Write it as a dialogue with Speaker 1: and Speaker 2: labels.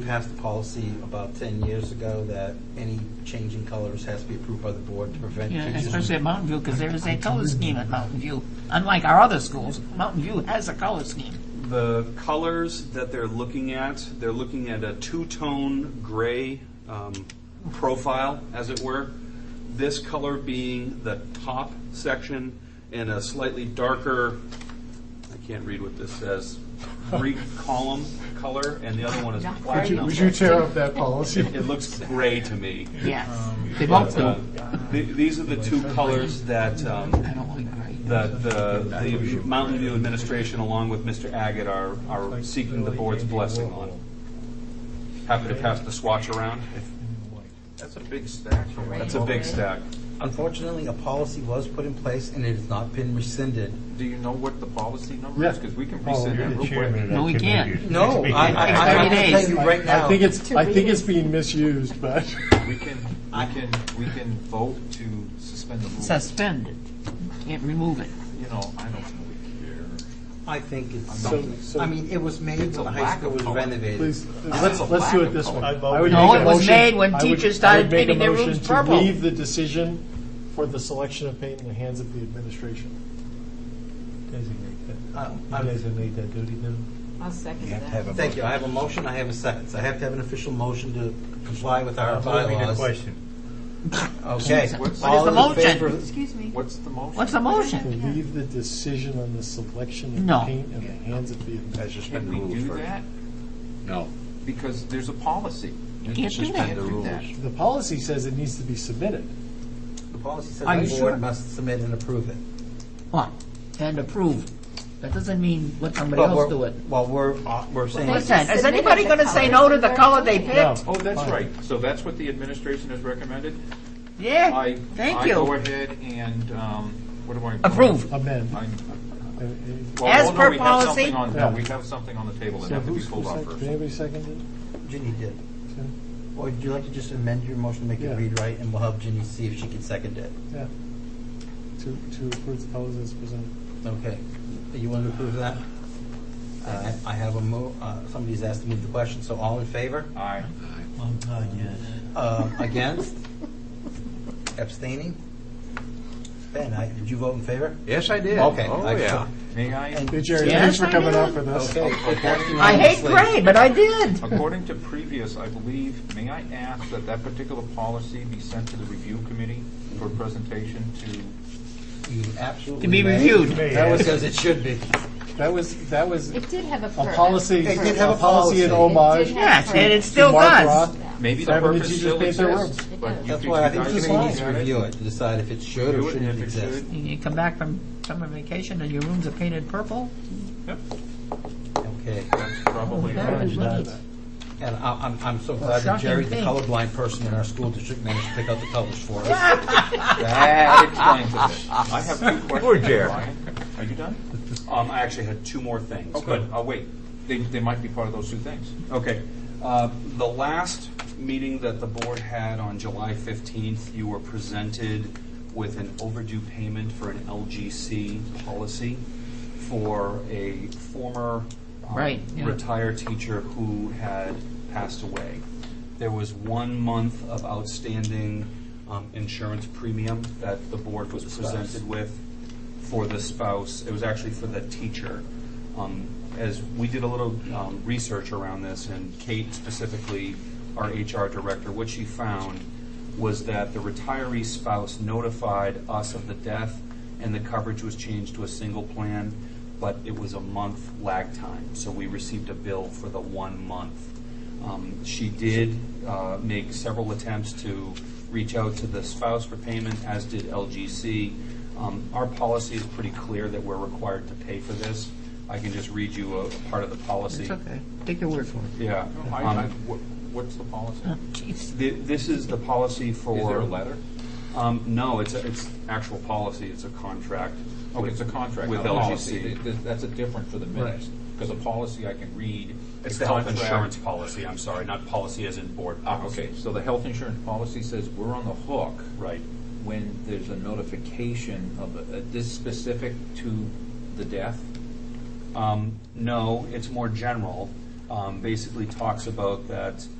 Speaker 1: We passed a policy about 10 years ago that any change in colors has to be approved by the board to prevent
Speaker 2: Yeah,
Speaker 1: kids
Speaker 2: especially at Mountain View, because there is a color scheme at Mountain View. Unlike our other schools, Mountain View has a color scheme.
Speaker 3: The colors that they're looking at, they're looking at a two-tone gray um, profile, as it were. This color being the top section and a slightly darker, I can't read what this says, Greek column color, and the other one is
Speaker 4: Would you,
Speaker 3: platinum.
Speaker 4: would you tear up that policy?
Speaker 3: It looks gray to me.
Speaker 2: Yes, they both
Speaker 3: But
Speaker 2: do.
Speaker 3: uh, th- these are the two colors that um,
Speaker 2: I don't like gray.
Speaker 3: that the, the Mountain View administration, along with Mr. Agate, are, are seeking the board's blessing on. Happy to pass the swatch around.
Speaker 5: That's a big stack.
Speaker 3: That's a big stack.
Speaker 1: Unfortunately, a policy was put in place and it has not been rescinded.
Speaker 5: Do you know what the policy number is?
Speaker 4: Yeah.
Speaker 5: Because we can rescind
Speaker 3: Oh,
Speaker 5: that real quick.
Speaker 2: No, we can't.
Speaker 1: No, I, I,
Speaker 2: Thirty
Speaker 1: I'm going to
Speaker 2: days.
Speaker 1: tell you right
Speaker 4: I
Speaker 1: now,
Speaker 4: think it's, I
Speaker 6: read
Speaker 4: think
Speaker 6: it.
Speaker 4: it's being misused, but
Speaker 5: We can, we can, we can vote to suspend the rules.
Speaker 2: Suspend it. Can't remove it.
Speaker 5: You know, I don't really
Speaker 1: I think it's
Speaker 4: So-
Speaker 1: something,
Speaker 4: so-
Speaker 1: I mean, it was made when
Speaker 5: a
Speaker 1: the high
Speaker 5: lack
Speaker 1: school
Speaker 5: of
Speaker 1: was
Speaker 5: color.
Speaker 1: renovated.
Speaker 4: please, let's, let's do it this way. I would
Speaker 2: No,
Speaker 4: make a
Speaker 2: it was
Speaker 4: motion-
Speaker 2: made when
Speaker 4: I would-
Speaker 2: teachers
Speaker 4: I would
Speaker 2: started
Speaker 4: make a
Speaker 2: painting their rooms
Speaker 4: motion to
Speaker 2: purple.
Speaker 4: Leave the decision for the selection of paint in the hands of the administration.
Speaker 7: Designate that.
Speaker 1: Um,
Speaker 7: You
Speaker 1: I'm-
Speaker 7: designate that duty now?
Speaker 6: I'll second that.
Speaker 1: Thank you, I have a motion, I have a second, so I have to have an official motion to comply with
Speaker 2: Uh,
Speaker 1: our
Speaker 7: Moving the
Speaker 1: bylaws.
Speaker 7: question.
Speaker 1: Okay.
Speaker 2: What is
Speaker 1: All
Speaker 2: the
Speaker 1: in
Speaker 2: motion?
Speaker 1: favor-
Speaker 6: Excuse me.
Speaker 5: What's the motion?
Speaker 2: What's the
Speaker 4: To
Speaker 2: motion?
Speaker 4: Leave the decision on the selection
Speaker 2: No.
Speaker 4: of paint in the hands of the administration.
Speaker 5: Can we do that?
Speaker 8: No.
Speaker 5: Because there's a policy.
Speaker 2: You can't do
Speaker 5: Can't
Speaker 2: that.
Speaker 5: do that.
Speaker 4: The policy says it needs to be submitted.
Speaker 1: The policy says
Speaker 2: Are you
Speaker 1: the
Speaker 2: sure?
Speaker 1: board must submit and approve it.
Speaker 2: What? And approved. That doesn't mean let somebody
Speaker 1: But
Speaker 2: else
Speaker 1: we're-
Speaker 2: do it.
Speaker 1: Well, we're, uh, we're saying.
Speaker 6: Well,
Speaker 2: Listen, is
Speaker 6: Submitted
Speaker 2: anybody
Speaker 6: the
Speaker 2: going to say no
Speaker 6: colors
Speaker 2: to the
Speaker 6: they're
Speaker 2: color they
Speaker 6: doing.
Speaker 2: picked?
Speaker 5: Oh, that's
Speaker 4: Fine.
Speaker 5: right. So that's what the administration has recommended?
Speaker 2: Yeah,
Speaker 5: I,
Speaker 2: thank
Speaker 5: I go
Speaker 2: you.
Speaker 5: ahead and, um, what do I?
Speaker 2: Approve.
Speaker 4: Amend.
Speaker 5: I'm-
Speaker 4: Uh, uh,
Speaker 5: well,
Speaker 2: As
Speaker 5: hold on,
Speaker 2: per
Speaker 5: we have
Speaker 2: policy.
Speaker 5: something on- No,
Speaker 4: Yeah.
Speaker 5: we have something on the table that
Speaker 4: so
Speaker 5: has to be
Speaker 4: who's-
Speaker 5: pulled
Speaker 4: who
Speaker 5: off
Speaker 4: sec-
Speaker 5: first.
Speaker 4: Did anybody second it?
Speaker 1: Ginny did. Or would you like to just amend your motion, to make it
Speaker 4: Yeah.
Speaker 1: read right, and we'll have Ginny see if she can second it?
Speaker 4: Yeah. To, to approve the policy as presented.
Speaker 1: Okay. You want to approve that? I- I have a mo, uh, somebody's asked to move the question, so all in favor?
Speaker 5: Aye.
Speaker 1: Um, Against? Abstaining? Ben, I- did you vote in favor?
Speaker 8: Yes, I did.
Speaker 1: Okay.
Speaker 8: Oh,
Speaker 1: I-
Speaker 8: yeah.
Speaker 5: May I?
Speaker 4: Hey, Jerry,
Speaker 2: Yes,
Speaker 4: thanks for
Speaker 2: I
Speaker 4: coming
Speaker 2: did.
Speaker 4: out for this.
Speaker 1: Oh, Okay. it passed
Speaker 2: I hate
Speaker 1: unanimously.
Speaker 2: gray, but I did.
Speaker 5: According to previous, I believe, may I ask that that particular policy be sent to the review committee for presentation to,
Speaker 1: You absolutely.
Speaker 2: To be
Speaker 1: may.
Speaker 2: reviewed.
Speaker 1: That was as it should be.
Speaker 4: That was, that was
Speaker 6: It did have a
Speaker 4: a
Speaker 6: purpose.
Speaker 4: policy,
Speaker 1: They did have a
Speaker 4: a policy in
Speaker 1: policy.
Speaker 4: homage to
Speaker 2: Yes, and it still
Speaker 4: Mark
Speaker 2: does.
Speaker 4: Roth.
Speaker 5: maybe the
Speaker 4: Having the
Speaker 5: purpose
Speaker 4: teachers
Speaker 5: still
Speaker 4: paint their
Speaker 5: exists?
Speaker 6: rooms.
Speaker 5: but you
Speaker 1: That's
Speaker 5: could-
Speaker 1: why I
Speaker 5: you
Speaker 1: think
Speaker 5: guys
Speaker 1: the
Speaker 5: can
Speaker 1: committee needs to
Speaker 5: look at it.
Speaker 1: review it to decide if it should
Speaker 5: Do
Speaker 1: or
Speaker 5: it, and
Speaker 1: shouldn't
Speaker 5: if it
Speaker 1: exist.
Speaker 5: should-
Speaker 2: You come back from summer vacation and your rooms are painted purple?
Speaker 1: Okay.
Speaker 5: That's probably
Speaker 2: That
Speaker 5: right.
Speaker 2: is right.
Speaker 1: And I- I'm, I'm so glad that
Speaker 2: shocking
Speaker 1: Jerry, the
Speaker 2: thing.
Speaker 1: colorblind person in our school district, managed to pick out the colors for us.
Speaker 5: That explains it. I have two questions.
Speaker 8: Poor Jer.
Speaker 5: Brian. Are you done?
Speaker 3: Um, I actually had two more things, but
Speaker 5: But, oh, wait, they, they might be part of those two things.
Speaker 3: Okay. Uh, The last meeting that the board had on July 15th, you were presented with an overdue payment for an LGC policy for a former um,
Speaker 2: Right, yeah.
Speaker 3: retired teacher who had passed away. There was one month of outstanding um, insurance premium that the board was presented with for the spouse. It was actually for the teacher. Um, As we did a little um, research around this, and Kate specifically, our HR director, what she found was that the retiree spouse notified us of the death, and the coverage was changed to a single plan, but it was a month lag time. So we received a bill for the one month. Um, She did uh, make several attempts to reach out to the spouse for payment, as did LGC. Um, Our policy is pretty clear that we're required to pay for this. I can just read you a part of the policy.
Speaker 2: It's okay. Take your word for it.
Speaker 3: Yeah.
Speaker 5: No, I, I,
Speaker 3: Um,
Speaker 5: what- what's the policy?
Speaker 2: Oh, jeez.
Speaker 3: thi- This is the policy for.
Speaker 5: Is there a letter?
Speaker 3: Um, No, it's, a- it's actual policy, it's a contract.
Speaker 5: Okay,
Speaker 3: with-
Speaker 5: Oh, it's a contract,
Speaker 3: With
Speaker 5: not a policy.
Speaker 3: LGC.
Speaker 5: Th- th- That's a different for the minutes, because a policy I can read.
Speaker 3: It's the health
Speaker 5: contract-
Speaker 3: insurance policy, I'm sorry, not policy as in board
Speaker 5: Ah,
Speaker 3: policy.
Speaker 5: okay, so the health insurance policy says we're on the hook.
Speaker 3: Right.
Speaker 5: When there's a notification of, a- a- this specific to the death?
Speaker 3: Um, No, it's more general.
Speaker 9: um, basically talks about that